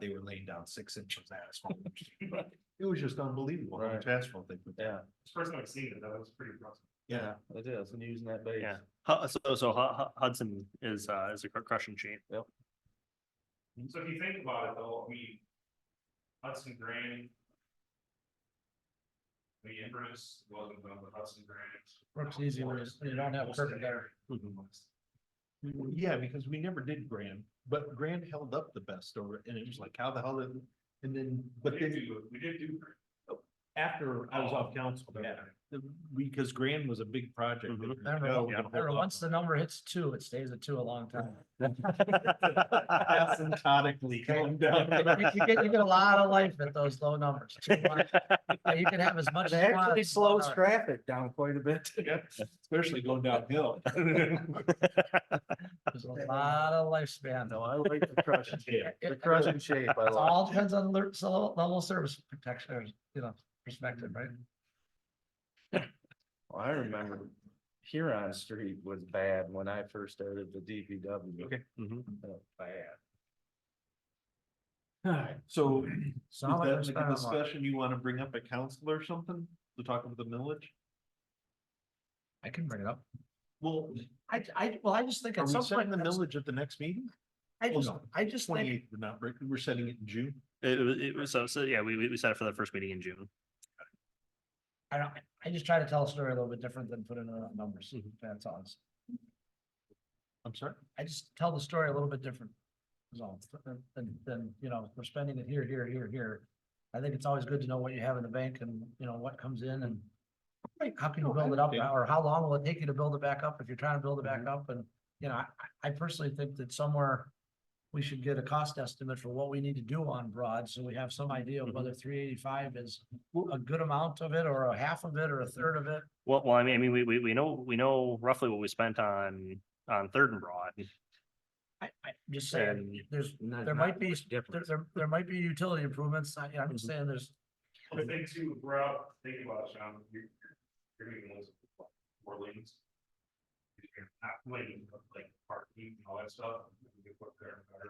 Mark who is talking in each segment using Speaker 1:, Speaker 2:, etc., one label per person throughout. Speaker 1: they were laying down six inches of asphalt. It was just unbelievable how much asphalt they put. down.
Speaker 2: Yeah,
Speaker 3: First time I've seen it, that was pretty impressive.
Speaker 1: Yeah,
Speaker 2: it is, and using that base.
Speaker 4: Yeah, Hu- so, so Hu- Hu- Hudson is, uh, is a cr- crushing machine.
Speaker 3: So if you think about it though, we Hudson Grain. The Empress wasn't done with Hudson Grain.
Speaker 5: Brooks Easy was- they don't have perfect air.
Speaker 1: yeah, because we never did Grand, but Grand held up the best over, and it was like, how the hell did? And then,
Speaker 3: We
Speaker 1: but
Speaker 3: did
Speaker 1: then Oh,
Speaker 3: do, we did do.
Speaker 1: after I was off council, yeah, the, because Grand was a big project. that
Speaker 4: Mhm.
Speaker 1: we
Speaker 5: I
Speaker 1: know
Speaker 5: remember-
Speaker 1: we can
Speaker 5: I remember
Speaker 1: hold off
Speaker 5: once the number hits two, it stays at two a long time.
Speaker 1: asymptotically come down.
Speaker 5: You get, you get a lot of life at those low numbers. Two months. Yeah, You can have as much.
Speaker 6: It
Speaker 5: as you want.
Speaker 6: actually slows traffic down quite a bit.
Speaker 1: Yeah, Especially going downhill.
Speaker 5: There's a lot of lifespan.
Speaker 6: No, I like the crush,
Speaker 1: Yeah.
Speaker 6: the
Speaker 5: It-
Speaker 6: crush and shape. I
Speaker 5: It
Speaker 6: like.
Speaker 5: all depends on the so level of service protection, or, you know, perspective, right?
Speaker 6: Well, I remember Huron Street was bad when I first started the DPW. Okay.
Speaker 4: Mhm.
Speaker 6: Bad.
Speaker 1: So is
Speaker 5: So how much
Speaker 1: that
Speaker 5: we
Speaker 1: like
Speaker 5: spend
Speaker 1: a
Speaker 5: on what?
Speaker 1: discussion you want to bring up at council or something to talk about the millage?
Speaker 5: I can bring it up.
Speaker 1: Well,
Speaker 5: I, I, well, I just think
Speaker 1: are
Speaker 5: at
Speaker 1: we
Speaker 5: some
Speaker 1: setting
Speaker 5: point,
Speaker 1: the
Speaker 5: that's-
Speaker 1: millage at the next meeting?
Speaker 5: I
Speaker 1: Well,
Speaker 5: just,
Speaker 1: no.
Speaker 5: I just
Speaker 1: Twenty
Speaker 5: think,
Speaker 1: eighth, we're not, breaking- we're setting it in June.
Speaker 4: It was, it was, so, so, yeah, we, we we set it for the first meeting in June.
Speaker 5: I don't, I just try to tell a story a little bit different than putting it on numbers.
Speaker 1: Mm-hmm.
Speaker 5: That's all. It's-
Speaker 1: I'm sorry.
Speaker 5: I just tell the story a little bit different. is all. Than- than, than, you know, we're spending it here, here, here, here. I think it's always good to know what you have in the bank and, you know, what comes in and how can you
Speaker 1: No, I
Speaker 5: build it up,
Speaker 1: understand.
Speaker 5: or how long will it take you to build it back up if you're trying to build it back up? And, you know, I, I personally think that somewhere we should get a cost estimate for what we need to do on Broad, so we have some idea of whether three eighty-five is a good amount of it, or a half of it, or a third of it.
Speaker 4: Well, well, I mean, I mean, we, we, we know, we know roughly what we spent on, on Third and Broad.
Speaker 5: I, I just saying,
Speaker 4: And-
Speaker 5: there's,
Speaker 6: Not-
Speaker 5: there
Speaker 6: not
Speaker 5: might be,
Speaker 6: much
Speaker 5: there,
Speaker 6: difference.
Speaker 5: there, there might be utility improvements, I, I'm
Speaker 1: Mm-hmm.
Speaker 5: just saying there's,
Speaker 3: The thing too, if we're out, thinking about it, Sean, you're, you're gonna lose like, four lanes. You're Not lanes, but like parking and all that stuff. you can put there and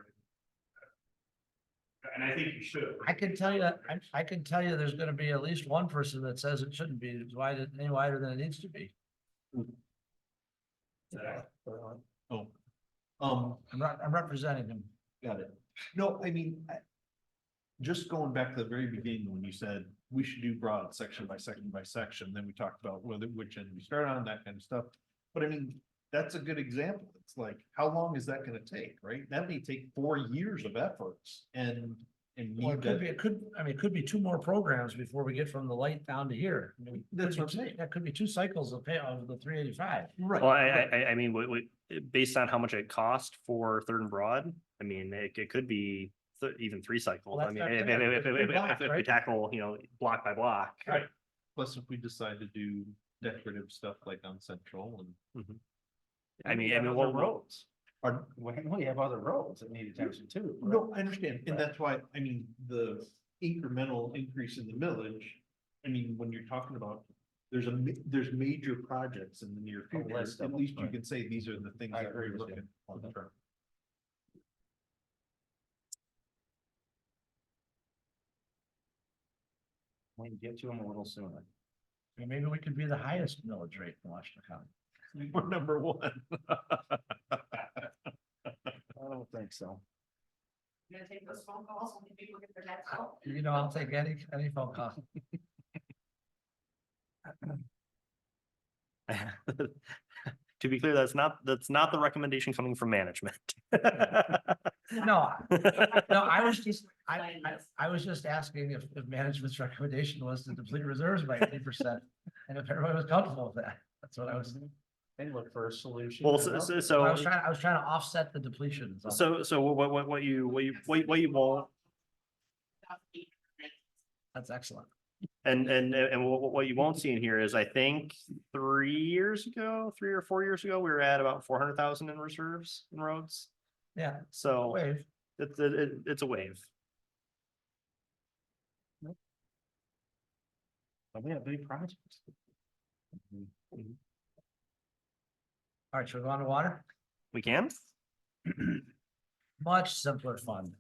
Speaker 3: better. And I think you should.
Speaker 5: I can tell you, that- I, I can tell you there's gonna be at least one person that says it shouldn't be wider, any wider than it needs to be.
Speaker 1: Mm-hmm. Oh. Um,
Speaker 5: I'm not, I'm representing him.
Speaker 1: Got it. No, I mean, I. Just going back to the very beginning when you said we should do broad section by section by section, then we talked about whether which end we start on, that kind of stuff. But I mean, that's a good example. It's like, how long is that gonna take, right? That may take four years of efforts and. And
Speaker 5: Or it
Speaker 1: need
Speaker 5: could be,
Speaker 1: that,
Speaker 5: it could, I mean, it could be two more programs before we get from the light down to here. I mean,
Speaker 1: That's what I'm
Speaker 5: could be-
Speaker 1: saying.
Speaker 5: That could be two cycles of pay of the three eighty-five.
Speaker 1: right?
Speaker 4: Well, I,
Speaker 1: right.
Speaker 4: I, I- I mean, we, we, based on how much it cost for Third and Broad, I mean, it, it could be th- even three cycles.
Speaker 5: Well,
Speaker 4: I
Speaker 5: that's
Speaker 4: mean,
Speaker 5: not
Speaker 4: if,
Speaker 5: bad.
Speaker 4: if, if,
Speaker 5: Three
Speaker 4: if-
Speaker 5: blocks,
Speaker 4: if- if we
Speaker 5: right?
Speaker 4: tackle, you know, block by block.
Speaker 1: Right. Plus, if we decide to do decorative stuff like on Central and.
Speaker 4: I mean, I
Speaker 6: Yeah,
Speaker 4: mean,
Speaker 6: those
Speaker 4: what
Speaker 6: are
Speaker 4: roads?
Speaker 1: Pardon?
Speaker 6: Well, we have other roads that need attention too. right?
Speaker 1: No, I understand, and
Speaker 6: Right.
Speaker 1: that's why, I mean, the incremental increase in the millage, I mean, when you're talking about. There's a, ma- there's major projects in the near
Speaker 6: A
Speaker 1: future,
Speaker 6: list of
Speaker 1: at
Speaker 6: them,
Speaker 1: least you
Speaker 6: Oh, right.
Speaker 1: can say these are the things
Speaker 6: I
Speaker 1: that
Speaker 6: agree
Speaker 1: we're
Speaker 6: with you. Mm-hmm.
Speaker 1: looking long term.
Speaker 6: We can get to them a little sooner.
Speaker 5: I mean, Maybe we could be the highest millage rate in Washington County.
Speaker 1: We're number one.
Speaker 6: I don't think so.
Speaker 7: You're gonna take those phone calls when people get their next call?
Speaker 5: You know, I'll take any, any phone call.
Speaker 4: To be clear, that's not, that's not the recommendation coming from management.
Speaker 5: No, no, I was just, I,
Speaker 7: Sign
Speaker 5: I,
Speaker 7: this.
Speaker 5: I was just asking if, if management's recommendation was to deplete reserves by eighty percent. And if everybody was comfortable with that, that's what I was,
Speaker 6: They look for a solution.
Speaker 4: Well,
Speaker 6: and
Speaker 4: so,
Speaker 6: nothing.
Speaker 4: so-
Speaker 5: I was
Speaker 4: so,
Speaker 5: trying, I was trying to offset the depletion. is all.
Speaker 4: so, so what, what, what you, what you, what what you won't,
Speaker 5: That's excellent.
Speaker 4: and, and, and what, what you won't see in here is I think three years ago, three or four years ago, we were at about four hundred thousand in reserves and roads.
Speaker 5: Yeah,
Speaker 4: So
Speaker 5: wave.
Speaker 4: it's, it, it- it's a wave.
Speaker 6: But We have big projects.
Speaker 5: All right, should we go on to water?
Speaker 4: We can?
Speaker 5: Much simpler fun.